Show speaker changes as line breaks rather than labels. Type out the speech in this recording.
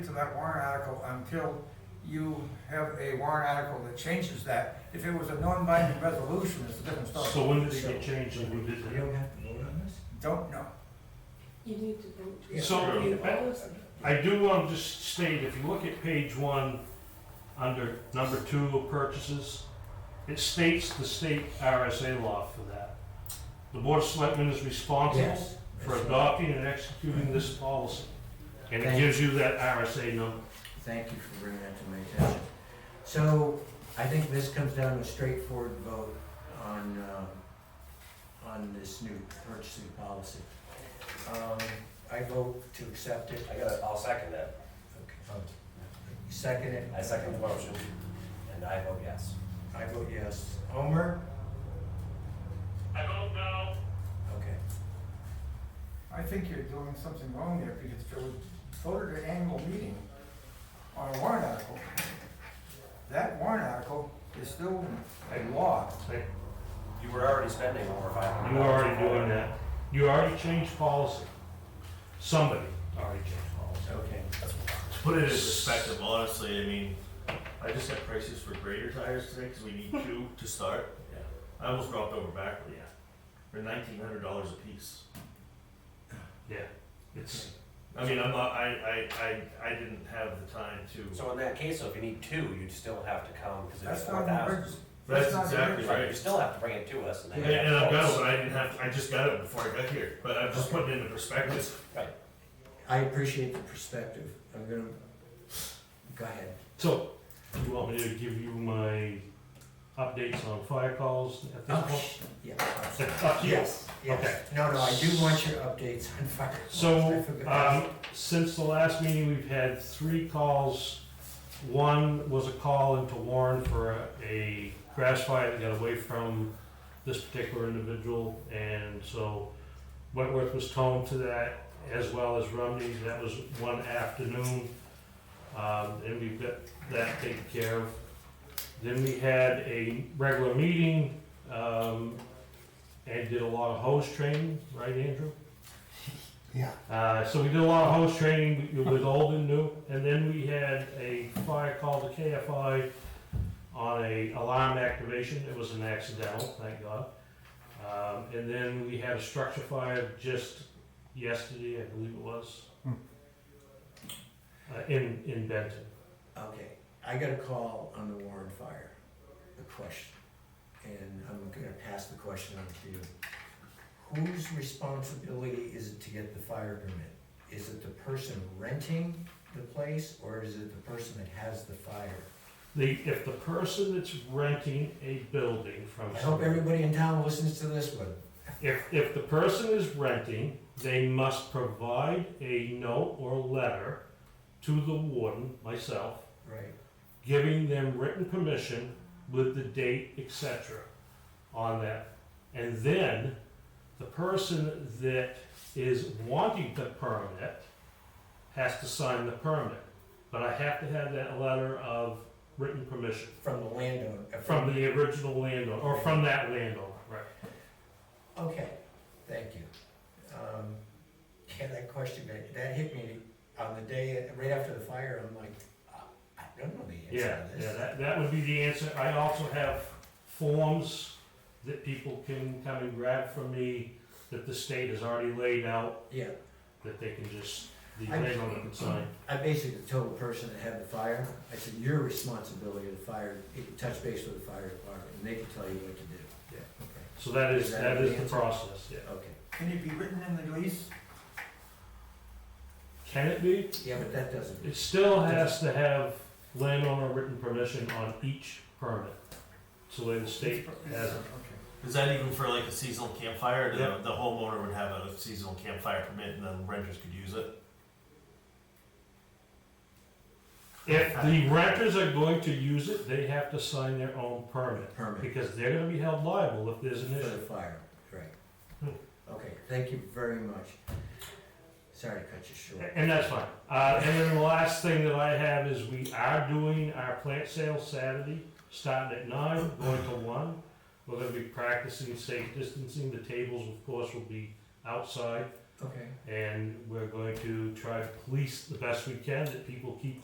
to that warrant article until you have a warrant article that changes that. If it was a non-binding resolution, it's a different story.
So when did it get changed and who did
We
it?
don't have to vote on this?
Don't know.
You need to vote. to
So-
approve all of them.
I do want to just state, if you look at page one, under number two of purchases, it states the state RSA law for that. The Board of Selectmen is responsible
Yes.
for adopting and executing this policy. And it
Thank you.
gives you that RSA number.
Thank you for bringing that to my attention. So I think this comes down to a straightforward vote on, um, on this new purchasing policy. Um, I vote to accept it.
I gotta, I'll second that. Oh.
Okay. You Second it.
I second the motion, and I vote yes.
I vote yes. Homer? I vote no. Okay.
I think you're doing something wrong there because if it was voted at annual meeting on a warrant article, that warrant article is still a law.
You were already spending over five hundred.
You were already doing that. You already changed policy. Somebody already changed policy.
Okay.
Put it in perspective, honestly, I mean, I just got prices for grader tires today because we need two to start.
Yeah.
I almost dropped over backward, yeah. For nineteen hundred dollars a piece.
Yeah, it's,
I mean, I'm not, I, I, I, I didn't have the time to.
So in that case, so if you need two, you'd still have to come, because it's
That's
four
not an
thousand.
emergency.
That's
not an
exactly
emergency.
right.
You still have to bring it to us, and
And,
then. you
and
have
I've
to
got it,
vote.
but I didn't have, I just got it before I got here, but I'm just putting it into perspective.
I appreciate the perspective. I'm gonna, go ahead.
so, you want me to give you my updates on fire calls at this
Oh,
point?
sh- Yeah.
It's up to you.
Yes, yes. No, no, I do want your updates on fire.
So,
I forgot.
um, since the last meeting, we've had three calls. One was a call into Warren for a- a grass fire that got away from this particular individual, and so Wentworth was toned to that, as well as Rumney, that was one afternoon. Um, and we've got that taken care of. Then we had a regular meeting, um, and did a lot of hose training, right, Andrew? Uh, so we did a lot of host training with old and new, and then we had a fire call to KFI on a alarm activation. It was an accidental, thank God. Um, and then we had a structure fire just yesterday, I believe it was, uh, in in Benton.
Okay, I got a call on the Warren fire, the question, and I'm gonna pass the question on to you. Whose responsibility is it to get the fire permit? Is it the person renting the place, or is it the person that has the fire?
The if the person that's renting a building from
I hope
somebody-
everybody in town listens to this one.
If, if the person is renting, they must provide a note or letter to the warden, myself,
Right.
giving them written permission with the date, etc., on that. And then the person that is wanting the permit has to sign the permit. But I have to have that letter of written permission
From the landowner. uh,
from the original landowner, or from that landowner, right?
Okay, thank you. Um, Yeah, that question, that, that hit me on the day, right after the fire, I'm like, I- I don't know the
Yeah,
answer to
yeah,
this.
that, that would be the answer. I also have forms that people can come and grab from me that the state has already laid out,
Yeah,
that they can just, the
I-
landowner can sign.
I basically told the person that had the fire, I said, your responsibility of the fire, you can touch base with the fire department, and they can tell you what to do.
Yeah.
Okay,
So that is,
Is that
that is
the
the
answer?
process, yeah.
okay.
Can it be written in the lease?
Can it be?
Yeah, but that doesn't,
It still has to have landowner written permission on each permit. So the state has it.
Okay.
Is that even for like a seasonal campfire?
Yeah.
The, the homeowner would have a seasonal campfire permit and then renters could use it?
If the renters are going to use it, they have to sign their own permit,
permit
because they're gonna be held liable if there's an
for
issue.
the fire, right.
Hmm.
Okay, thank you very much. Sorry to cut you short.
And that's fine. Uh, and then the last thing that I have is we are doing our plant sale Saturday, starting at nine, going to one. We're gonna be practicing safe distancing. The tables, of course, will be outside.
Okay.
and we're going to try to police the best we can that people keep